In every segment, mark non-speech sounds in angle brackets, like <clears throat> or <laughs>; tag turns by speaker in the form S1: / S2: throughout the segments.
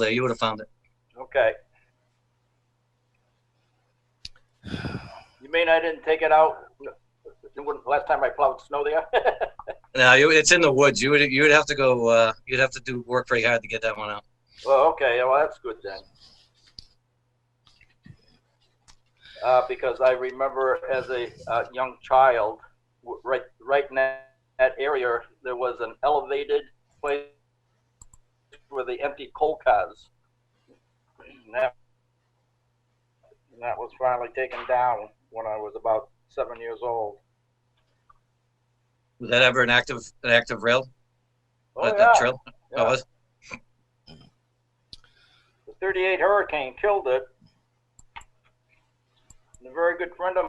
S1: there. You would have found it.
S2: Okay. You mean I didn't take it out when- last time I plowed snow there? <laughs>
S1: No, you- it's in the woods. You would you would have to go. Uh, you'd have to do work pretty hard to get that one out.
S2: Well, okay, well, that's good then. Uh, because I remember as a, uh, young child, w- right, right in that, that area, there was an elevated place where they emptied coal cars. And that, and that was finally taken down when I was about seven years old.
S1: Was that ever an active an active rail?
S2: Oh,
S1: That-
S2: yeah,
S1: that trail?
S2: yeah.
S1: Oh, was-
S2: The 38 Hurricane killed it. And a very good friend of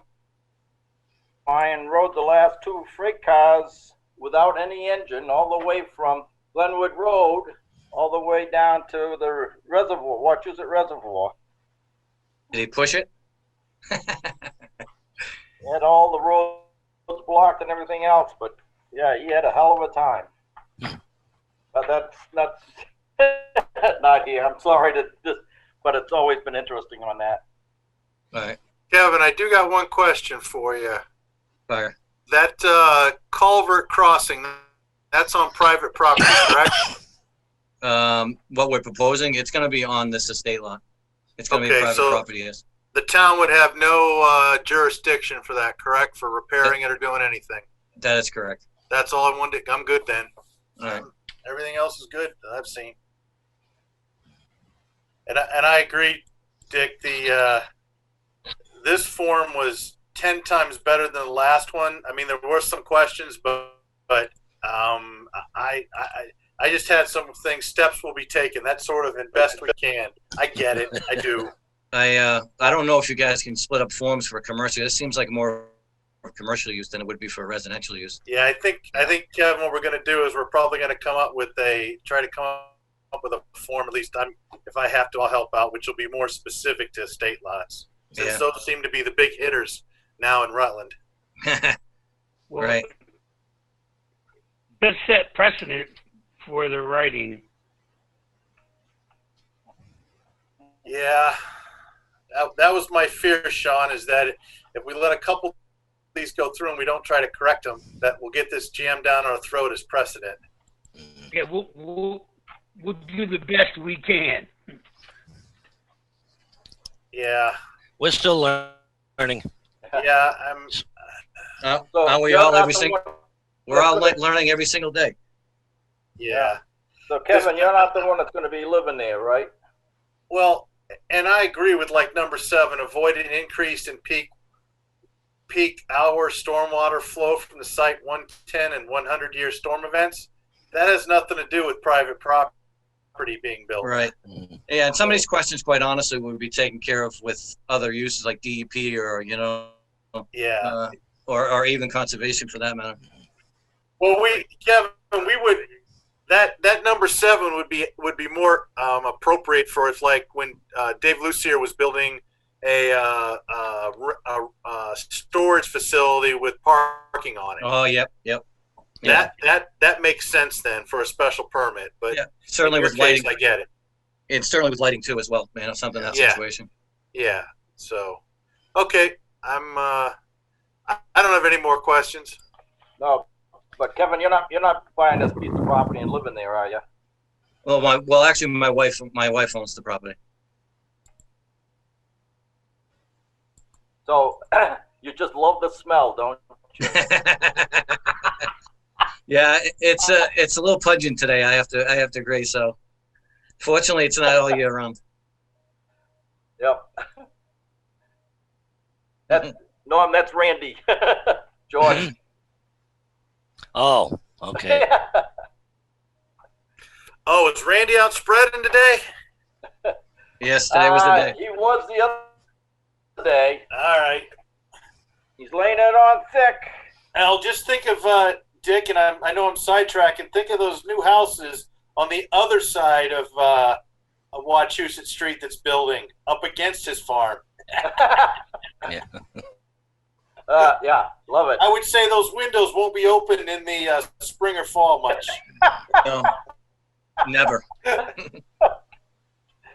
S2: mine rode the last two freight cars without any engine all the way from Glenwood Road all the way down to the reservoir, Wachusett Reservoir.
S1: Did he push it?
S2: He had all the roads blocked and everything else, but yeah, he had a hell of a time. But that's not, <laughs> not here. I'm sorry to just, but it's always been interesting on that.
S1: All right,
S3: Kevin, I do got one question for you.
S1: fire.
S3: That uh, culvert crossing, that's on private property, correct?
S1: Um, what we're proposing, it's going to be on this estate lot. It's going to be
S3: Okay,
S1: private
S3: so-
S1: property. Yes.
S3: the town would have no uh, jurisdiction for that, correct? For repairing it or doing anything.
S1: That is correct.
S3: That's all I wanted. I'm good then.
S1: All right.
S3: Everything else is good that I've seen. And I, and I agree, Dick. The uh, this form was ten times better than the last one. I mean, there were some questions, but but um, I, I I just had some things. Steps will be taken. That sort of and best we can. I get it. I do.
S1: I uh, I don't know if you guys can split up forms for commercial. This seems like more for commercial use than it would be for residential use.
S3: Yeah, I think I think Kevin, what we're going to do is we're probably going to come up with a try to come up with a form. At least I'm, if I have to, I'll help out, which will be more specific to state lots, since
S1: Yeah.
S3: those seem to be the big hitters now in Rutland.
S4: Well,
S1: Right.
S4: Does set precedent for the writing.
S3: Yeah, that, that was my fear, Sean, is that if we let a couple of these go through and we don't try to correct them, that we'll get this jammed down our throat as precedent.
S4: Yeah, we'll, we'll, we'll do the best we can.
S3: <laughs> Yeah,
S5: We're still lear- learning.
S3: yeah, I'm.
S1: Uh,
S2: So
S1: Aren't we
S2: you're
S1: all
S2: not
S1: every
S2: the
S1: single?
S2: one-
S1: We're all le- learning every single day.
S3: Yeah.
S2: So Kevin, you're not the one that's gonna be living there, right?
S3: Well, and I agree with like number seven, avoid an increase in peak peak hour stormwater flow from the site 110 and 100 year storm events. That has nothing to do with private property being built.
S1: Right. Yeah, and some of these questions, quite honestly, would be taken care of with other uses like DEP or, you know,
S3: Yeah.
S1: uh, or, or even conservation for that matter.
S3: Well, we Kevin, we would that that number seven would be would be more um, appropriate for if like when uh, Dave Lucier was building a, uh, uh, r- uh, uh, storage facility with parking on it.
S1: Oh, yep, yep. Yeah.
S3: That that that makes sense then for a special permit, but
S1: Yeah, certainly
S3: in your
S1: with lighting,
S3: case, I get it.
S1: and certainly with lighting too as well, man, or something in that
S3: Yeah.
S1: situation.
S3: Yeah. So, okay, I'm. Uh, I, I don't have any more questions.
S2: No, but Kevin, you're not, you're not buying this piece of property and living there, are you?
S1: Well, my, well, actually, my wife, my wife owns the property. <laughs>
S2: So <clears throat> you just love the smell, don't you?
S1: yeah, it- it's a, it's a little pungent today. I have to, I have to agree. So fortunately, it's not all year round.
S2: Yep. <laughs> That's, Norm, that's Randy. <laughs>
S1: <laughs>
S2: George.
S5: Oh, okay.
S2: Yeah,
S3: Oh, is Randy out spreading today?
S1: Yes, today was
S3: Uh,
S1: the day.
S2: Uh, He was the other day.
S3: All right.
S2: He's laying it on thick.
S3: Al, just think of uh, Dick, and I'm, I know I'm sidetracking. Think of those new houses on the other side of uh, of Wachusett Street that's building up against his farm.
S5: Yeah.
S2: Uh, yeah, love it.
S3: I would say those windows won't be open in the uh, spring or fall much.
S1: No, never.